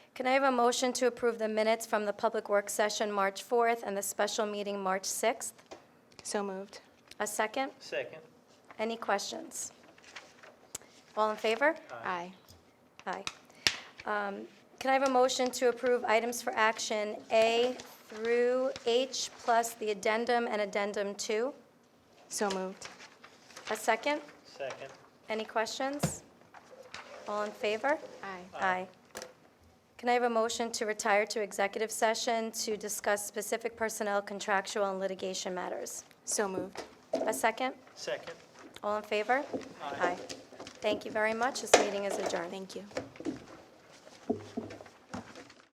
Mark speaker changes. Speaker 1: Can I have a motion to approve the minutes from the public works session March 4th and the special meeting March 6th?
Speaker 2: So moved.
Speaker 1: A second?
Speaker 3: Second.
Speaker 1: Any questions? All in favor?
Speaker 2: Aye.
Speaker 1: Aye. Um, Can I have a motion to approve items for action A through H plus the addendum and addendum 2?
Speaker 2: So moved.
Speaker 1: A second?
Speaker 3: Second.
Speaker 1: Any questions? All in favor?
Speaker 2: Aye.
Speaker 1: Aye. Can I have a motion to retire to executive session to discuss specific personnel, contractual, and litigation matters?
Speaker 2: So moved.
Speaker 1: A second?
Speaker 3: Second.
Speaker 1: All in favor?
Speaker 3: Aye.
Speaker 1: Thank you very much. This meeting is adjourned.
Speaker 2: Thank you.